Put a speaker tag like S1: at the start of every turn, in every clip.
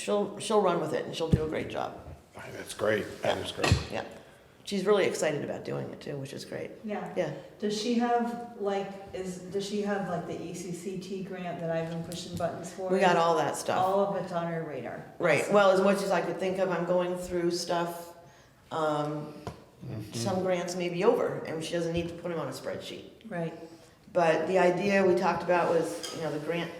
S1: she'll, she'll run with it and she'll do a great job.
S2: That's great, that is great.
S1: Yeah. She's really excited about doing it too, which is great.
S3: Yeah.
S1: Yeah.
S3: Does she have like is does she have like the E ECCT grant that I've been pushing buttons for?
S1: We got all that stuff.
S3: All of it's on her radar.
S1: Right. Well, as much as I could think of, I'm going through stuff. Um, Some grants may be over and she doesn't need to put them on a spreadsheet.
S3: Right.
S1: But the idea we talked about was, you know, the grant,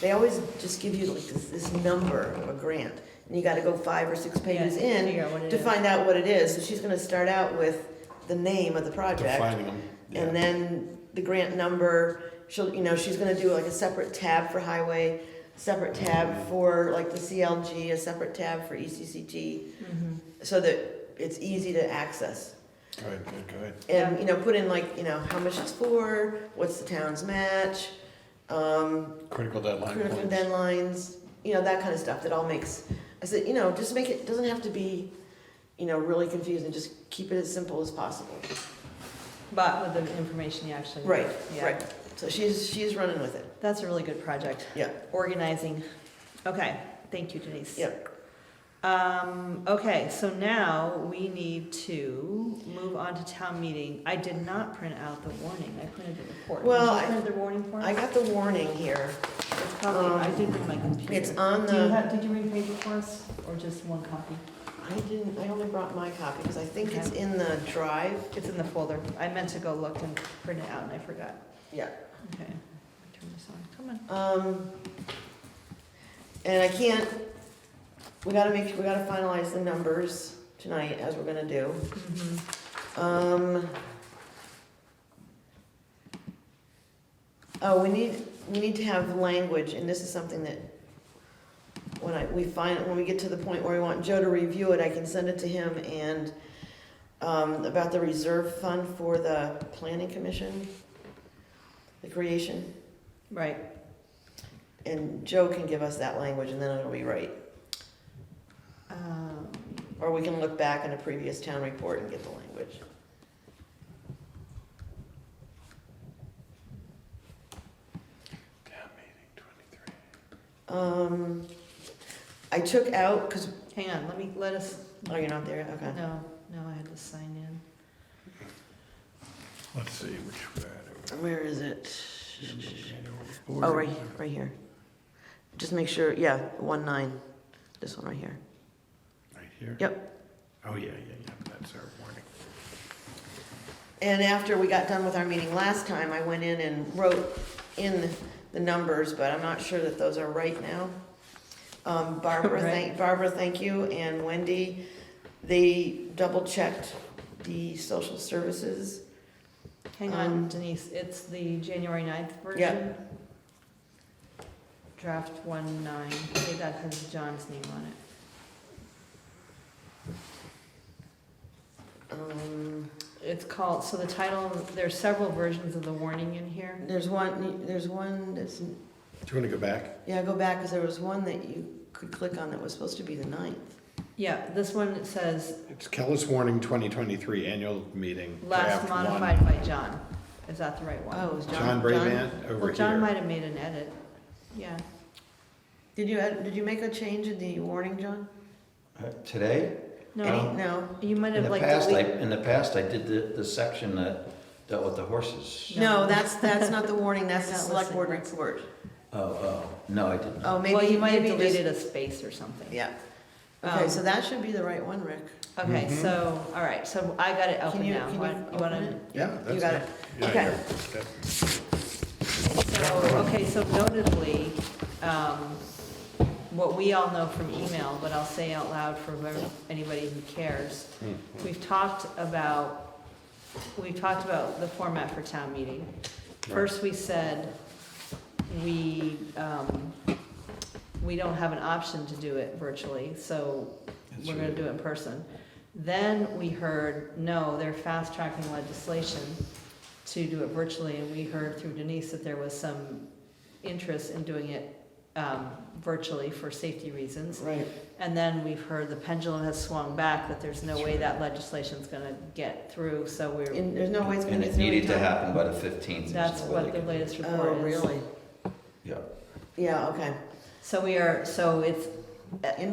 S1: they always just give you like this, this number of a grant. And you gotta go five or six pages
S3: Yeah,
S1: in
S3: figure out what it
S1: to
S3: is.
S1: find out what it is. So she's gonna start out with the name of the project.
S2: Defining them. yeah.
S1: And then the grant number, she'll, you know, she's gonna do like a separate tab for highway, separate tab
S2: Mhm.
S1: for like the CLG, a separate tab for E ECCT,
S3: Mm-hmm.
S1: so that it's easy to access.
S2: Good, good, good.
S1: And, you know, put in like, you know, how much it's for, what's the town's match, um,
S2: Critical deadline
S1: critical
S2: points.
S1: deadlines, you know, that kind of stuff that all makes, I said, you know, just make it, doesn't have to be, you know, really confusing, just keep it as simple as possible.
S3: But with the information you actually. need.
S1: Right,
S3: Yeah.
S1: right. So she's, she's running with it.
S3: That's a really good project.
S1: Yeah.
S3: Organizing. Okay. Thank you, Denise.
S1: Yeah.
S3: Um, okay, so now we need to move on to town meeting. I did not print out the warning. I printed the report.
S1: Well,
S3: Did
S1: I-
S3: you print the warning for
S1: I
S3: us?
S1: got the warning here.
S3: It's probably, I
S1: um,
S3: did bring my computer.
S1: It's on
S3: Do you
S1: the,
S3: have, did you bring paper for us or just one copy?
S1: I didn't, I only brought my copy because I think it's in the drive.
S3: It's in the folder. I meant to go look and print it out and I forgot.
S1: Yeah.
S3: Okay. Turn this on. Come on.
S1: Um, and I can't, we gotta make, we gotta finalize the numbers tonight, as we're gonna do.
S3: Mhm.
S1: Um, oh, we need, we need to have language, and this is something that when I, we find, when we get to the point where we want Joe to review it, I can send it to him and, um, about the reserve fund for the planning commission, the creation.
S3: Right.
S1: And Joe can give us that language and then it'll be right.
S3: Um,
S1: Or we can look back in a previous town report and get the language.
S2: Town meeting 23.
S1: Um, I took out, cause,
S3: Hang on, let me, let us,
S1: oh, you're not there, yet? okay.
S3: no, no, I had to sign in.
S2: Let's see, which, uh,
S1: Where is it?
S2: board-
S1: Oh, right, right here. Just make sure, yeah, one nine, this one right here.
S2: Right here?
S1: Yep.
S2: Oh, yeah, yeah, yeah, that's our warning.
S1: And after we got done with our meeting last time, I went in and wrote in the numbers, but I'm not sure that those are right now. Um, Barbara,
S3: Right.
S1: thank, Barbara, thank you, and Wendy, they double checked the social services.
S3: Hang
S1: Um,
S3: on, Denise, it's the January 9th version? Draft one nine, I think that has John's name on it.
S1: Um,
S3: It's called, so the title, there's several versions of the warning in here.
S1: there's one, there's one that's,
S2: Do you want to go back?
S1: yeah, go back, cause there was one that you could click on that was supposed to be the ninth.
S3: Yeah, this one says
S2: It's Kellis Warning 2023 Annual Meeting.
S3: last
S2: draft one.
S3: modified by John. Is that the right one?
S1: Oh, it was John.
S2: John Brayman over
S3: Well,
S2: here.
S3: John might have made an edit. Yeah,
S1: Did you, add- did you make a change in the warning, John?
S4: Uh, Today?
S3: no,
S1: Any, no?
S3: you might
S4: In
S3: have
S4: the
S3: like
S4: past, I,
S3: deleted.
S4: in the past, I did the, the section that dealt with the horses.
S1: No, that's, that's not the warning, that's the
S3: Not
S1: select board
S3: listening.
S1: report.
S4: Oh, oh, no, I did not.
S1: Oh,
S3: Well,
S1: maybe,
S3: you might have
S1: maybe
S3: deleted
S1: just,
S3: a space or something.
S1: yeah. Okay,
S3: Um,
S1: so that should be the right one, Rick.
S3: Okay,
S2: Mhm.
S3: so, all right, so I got it
S1: Can
S3: open
S1: you,
S3: now.
S1: can you
S3: Why- You
S1: open
S3: wanna?
S1: it?
S2: Yeah,
S1: You
S2: that's
S1: got
S2: it.
S1: it.
S2: Yeah,
S1: Okay.
S2: yeah, that's good.
S3: So, okay, so notably, um, what we all know from email, but I'll say out loud for whoever, anybody who cares,
S2: Mm,
S3: we've talked about, we've talked about the format for town meeting. First, we said, we, um, we don't have an option to do it virtually, so
S4: That's
S3: we're gonna
S4: right.
S3: do it in person. Then we heard, no, they're fast tracking legislation to do it virtually, and we heard through Denise that there was some interest in doing it, um, virtually for safety reasons.
S1: Right.
S3: And then we've heard the pendulum has swung back, that there's no way that legislation's gonna get through, so we're,
S1: And there's no way it's gonna
S4: And
S1: be
S4: it
S1: through in
S4: needed to
S1: time.
S4: happen by the fifteenth.
S3: that's what the latest report
S1: Oh,
S3: is.
S1: really?
S4: Yeah.
S1: Yeah, Oh, okay.
S3: So we are, so it's uh,
S1: In